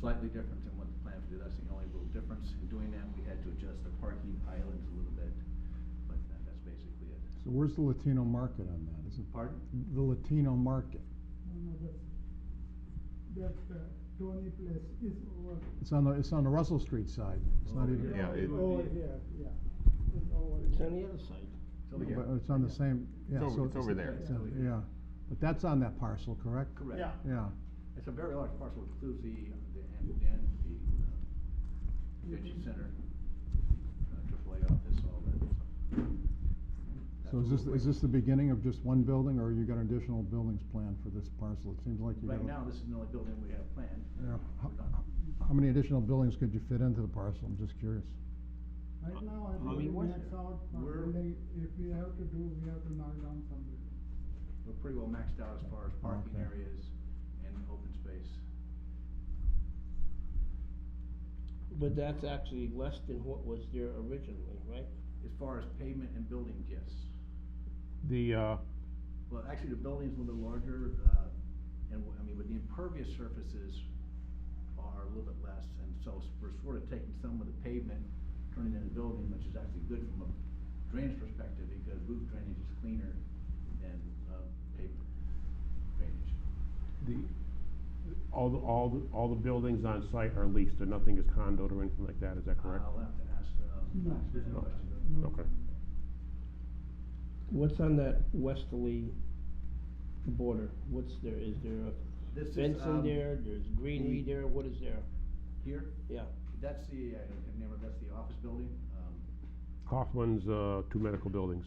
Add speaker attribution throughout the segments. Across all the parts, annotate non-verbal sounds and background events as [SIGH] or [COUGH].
Speaker 1: slightly different than what the plans do, that's the only little difference. In doing that, we had to adjust the parking islands a little bit, but that- that's basically it.
Speaker 2: So where's the Latino market on that? Is it
Speaker 1: Pardon?
Speaker 2: the Latino market?
Speaker 3: No, no, that's, that uh, Tony place is over.
Speaker 2: It's on the, it's on the Russell Street side. It's not
Speaker 1: Over
Speaker 2: even.
Speaker 1: here. Yeah, it would
Speaker 3: Over
Speaker 1: be-
Speaker 3: here, yeah. It's over
Speaker 4: It's
Speaker 3: here.
Speaker 4: on the other side.
Speaker 1: It's over here.
Speaker 2: But it's on the same, yeah.
Speaker 5: It's over-
Speaker 2: so
Speaker 5: it's over there.
Speaker 2: it's on- Yeah, but that's on that parcel, correct?
Speaker 1: Correct.
Speaker 3: Yeah.
Speaker 2: Yeah,
Speaker 1: It's a very large parcel, It includes the, the, and, and the uh, convention center, uh, AAA office, all that. so.
Speaker 2: so is
Speaker 1: That's
Speaker 2: this,
Speaker 1: what we're
Speaker 2: is this the
Speaker 1: waiting.
Speaker 2: beginning of just one building, or you got additional buildings planned for this parcel? It seems like you got.
Speaker 1: Right now, this is the only building we have planned.
Speaker 2: Yeah, how,
Speaker 1: We're not-
Speaker 2: how many additional buildings could you fit into the parcel? I'm just curious.
Speaker 3: Right now, I
Speaker 4: How many
Speaker 3: think we
Speaker 4: was
Speaker 3: max
Speaker 4: there?
Speaker 3: out, one
Speaker 1: We're-
Speaker 3: building. if we have to do, we have to knock down some building.
Speaker 1: We're pretty well maxed out as far as parking
Speaker 2: Okay.
Speaker 1: areas and open space.
Speaker 4: But that's actually less than what was there originally, right?
Speaker 1: As far as pavement and building, yes.
Speaker 5: The, uh,
Speaker 1: Well, actually, the building's a little bit larger, uh, and, w- I mean, but the impervious surfaces are a little bit less, and so s- we're sort of taking some of the pavement, turning it into building, which is actually good from a drainage perspective, because roof drainage is cleaner than, uh, pavement drainage.
Speaker 5: the, all, the all, the all the buildings on site are leased, and nothing is condoed or anything like that, is that correct?
Speaker 1: I'll have to ask,
Speaker 3: No.
Speaker 1: uh, ask that
Speaker 5: No.
Speaker 1: question.
Speaker 3: No.
Speaker 5: Okay.
Speaker 4: What's on that westerly border? What's there, is there
Speaker 1: This
Speaker 4: a
Speaker 1: is,
Speaker 4: fence in
Speaker 1: um,
Speaker 4: there, there's greenery
Speaker 1: the-
Speaker 4: there, what is there?
Speaker 1: Here,
Speaker 4: Yeah,
Speaker 1: that's the, uh, I can remember, that's the office building, um,
Speaker 5: Kaufman's, uh, two medical buildings.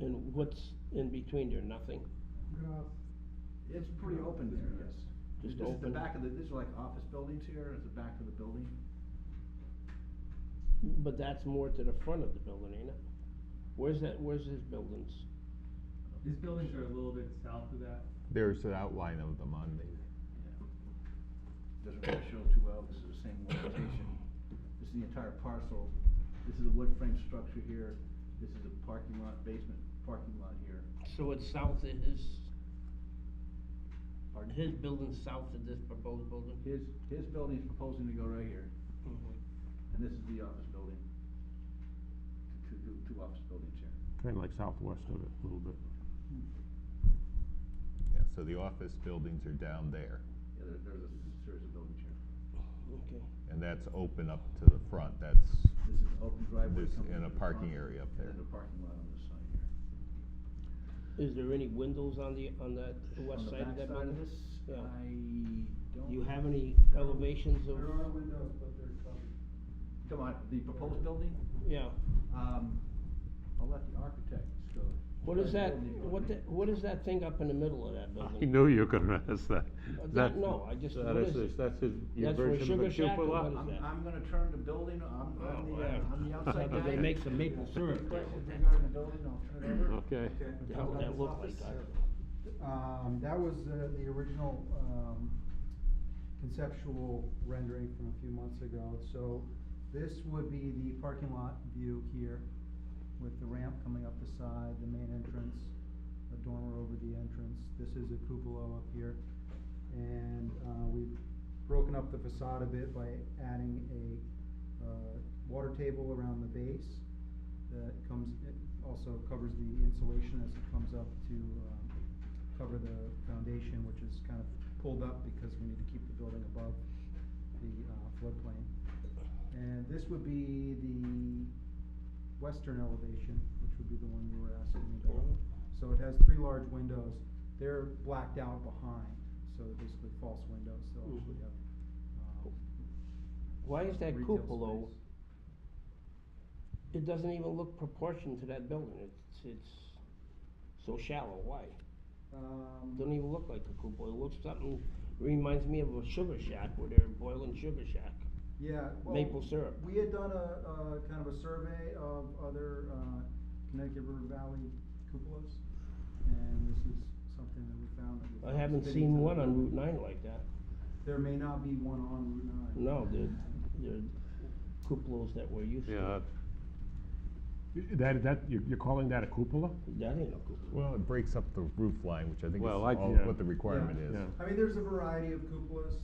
Speaker 4: and what's in between there, nothing?
Speaker 3: Grass,
Speaker 1: It's pretty open there, yes.
Speaker 4: Just
Speaker 1: This is the
Speaker 4: open.
Speaker 1: back of the, these are like office buildings here, it's the back of the building.
Speaker 4: But that's more to the front of the building, ain't it? Where's that, where's his buildings?
Speaker 6: These buildings are a little bit south of that.
Speaker 7: There's an outline of them on the,
Speaker 1: Yeah. Doesn't really show too well, this is the same orientation, this is the entire parcel, this is a wood frame structure here, this is a parking lot, basement parking lot here.
Speaker 4: So it's south of his,
Speaker 1: Pardon?
Speaker 4: his building's south of this proposed building?
Speaker 1: His, his building is proposing to go right here,
Speaker 4: Mm-hmm.
Speaker 1: and this is the office building. Two, two, two office buildings here.
Speaker 5: Kinda like southwest of it, a little bit.
Speaker 7: yeah, so the office buildings are down there,
Speaker 1: Yeah, there, there's a series of buildings here.
Speaker 4: Okay.
Speaker 7: and that's open up to the front, that's,
Speaker 1: This is open driveway
Speaker 7: there's,
Speaker 1: coming
Speaker 7: and a
Speaker 1: from the
Speaker 7: parking
Speaker 1: front,
Speaker 7: area up
Speaker 1: And
Speaker 7: there.
Speaker 1: then the parking lot on this side here.
Speaker 4: Is there any windows on the, on that
Speaker 1: On
Speaker 4: west
Speaker 1: the
Speaker 4: side of
Speaker 1: back
Speaker 4: that
Speaker 1: side
Speaker 4: building?
Speaker 1: this,
Speaker 4: Yeah.
Speaker 1: I don't.
Speaker 4: Do you have any elevations of,
Speaker 3: there are windows, but they're covered.
Speaker 1: Come on, the proposed building,
Speaker 4: yeah,
Speaker 1: um, I'll let the architects go.
Speaker 4: what is that,
Speaker 1: Building, building.
Speaker 4: what the, what is that thing up in the middle of that building?
Speaker 5: I knew you were gonna ask that.
Speaker 4: Uh, that-
Speaker 5: That-
Speaker 4: no, I just-
Speaker 5: that
Speaker 4: what
Speaker 5: is
Speaker 4: is
Speaker 5: his-
Speaker 4: it?
Speaker 5: That's his, your
Speaker 4: That's where
Speaker 5: version of a
Speaker 4: Sugar Shack or
Speaker 5: cupola?
Speaker 4: what is
Speaker 1: I'm,
Speaker 4: that?
Speaker 1: I'm gonna turn the building, I'm, I'm
Speaker 4: Oh,
Speaker 1: the, uh,
Speaker 4: wow.
Speaker 1: I'm the outside guy.
Speaker 4: [LAUGHS] They make some maple syrup there.
Speaker 1: Questions regarding the building, I'll turn it over.
Speaker 5: Okay.
Speaker 4: The hell would that look like?
Speaker 8: Um, that was uh, the original, um, conceptual rendering from a few months ago. So this would be the parking lot view here with the ramp coming up the side, the main entrance, a dormer over the entrance. This is a cupola up here. And, uh, we've broken up the facade a bit by adding a, uh, water table around the base that comes, it also covers the insulation as it comes up to, um, cover the foundation, which is kind of pulled up because we need to keep the building above the uh, floodplain. And this would be the western elevation, which would be the one you were asking me about.
Speaker 4: Oh.
Speaker 8: So it has three large windows, they're blacked out behind, so they're basically false windows, they'll actually have, uh,
Speaker 4: Why is that
Speaker 8: retail
Speaker 4: cupola,
Speaker 8: space.
Speaker 4: it doesn't even look proportioned to that building, it's, it's so shallow, why?
Speaker 8: Um,
Speaker 4: Doesn't even look like a cupola, it looks something, reminds me of a sugar shack where they're boiling sugar shack.
Speaker 8: Yeah. well,
Speaker 4: Maple syrup.
Speaker 8: We had done a, a kind of a survey of other, uh, Connecticut River Valley cupolas, and this is something that we found that we.
Speaker 4: I
Speaker 8: found
Speaker 4: haven't
Speaker 8: fitting
Speaker 4: seen
Speaker 8: to the
Speaker 4: one on
Speaker 8: building.
Speaker 4: Route nine like that.
Speaker 8: There may not be one on Route nine.
Speaker 4: No, they're, they're cupolas that we're used to.
Speaker 5: Yeah. That, that, you're, you're calling that a cupola?
Speaker 4: That ain't a cupola.
Speaker 7: Well, it breaks up the roof line, which I think is
Speaker 5: Well, I-
Speaker 7: all
Speaker 5: yeah.
Speaker 7: what the requirement
Speaker 8: Yeah.
Speaker 7: is.
Speaker 5: Yeah.
Speaker 8: I mean, there's a variety of cupolas,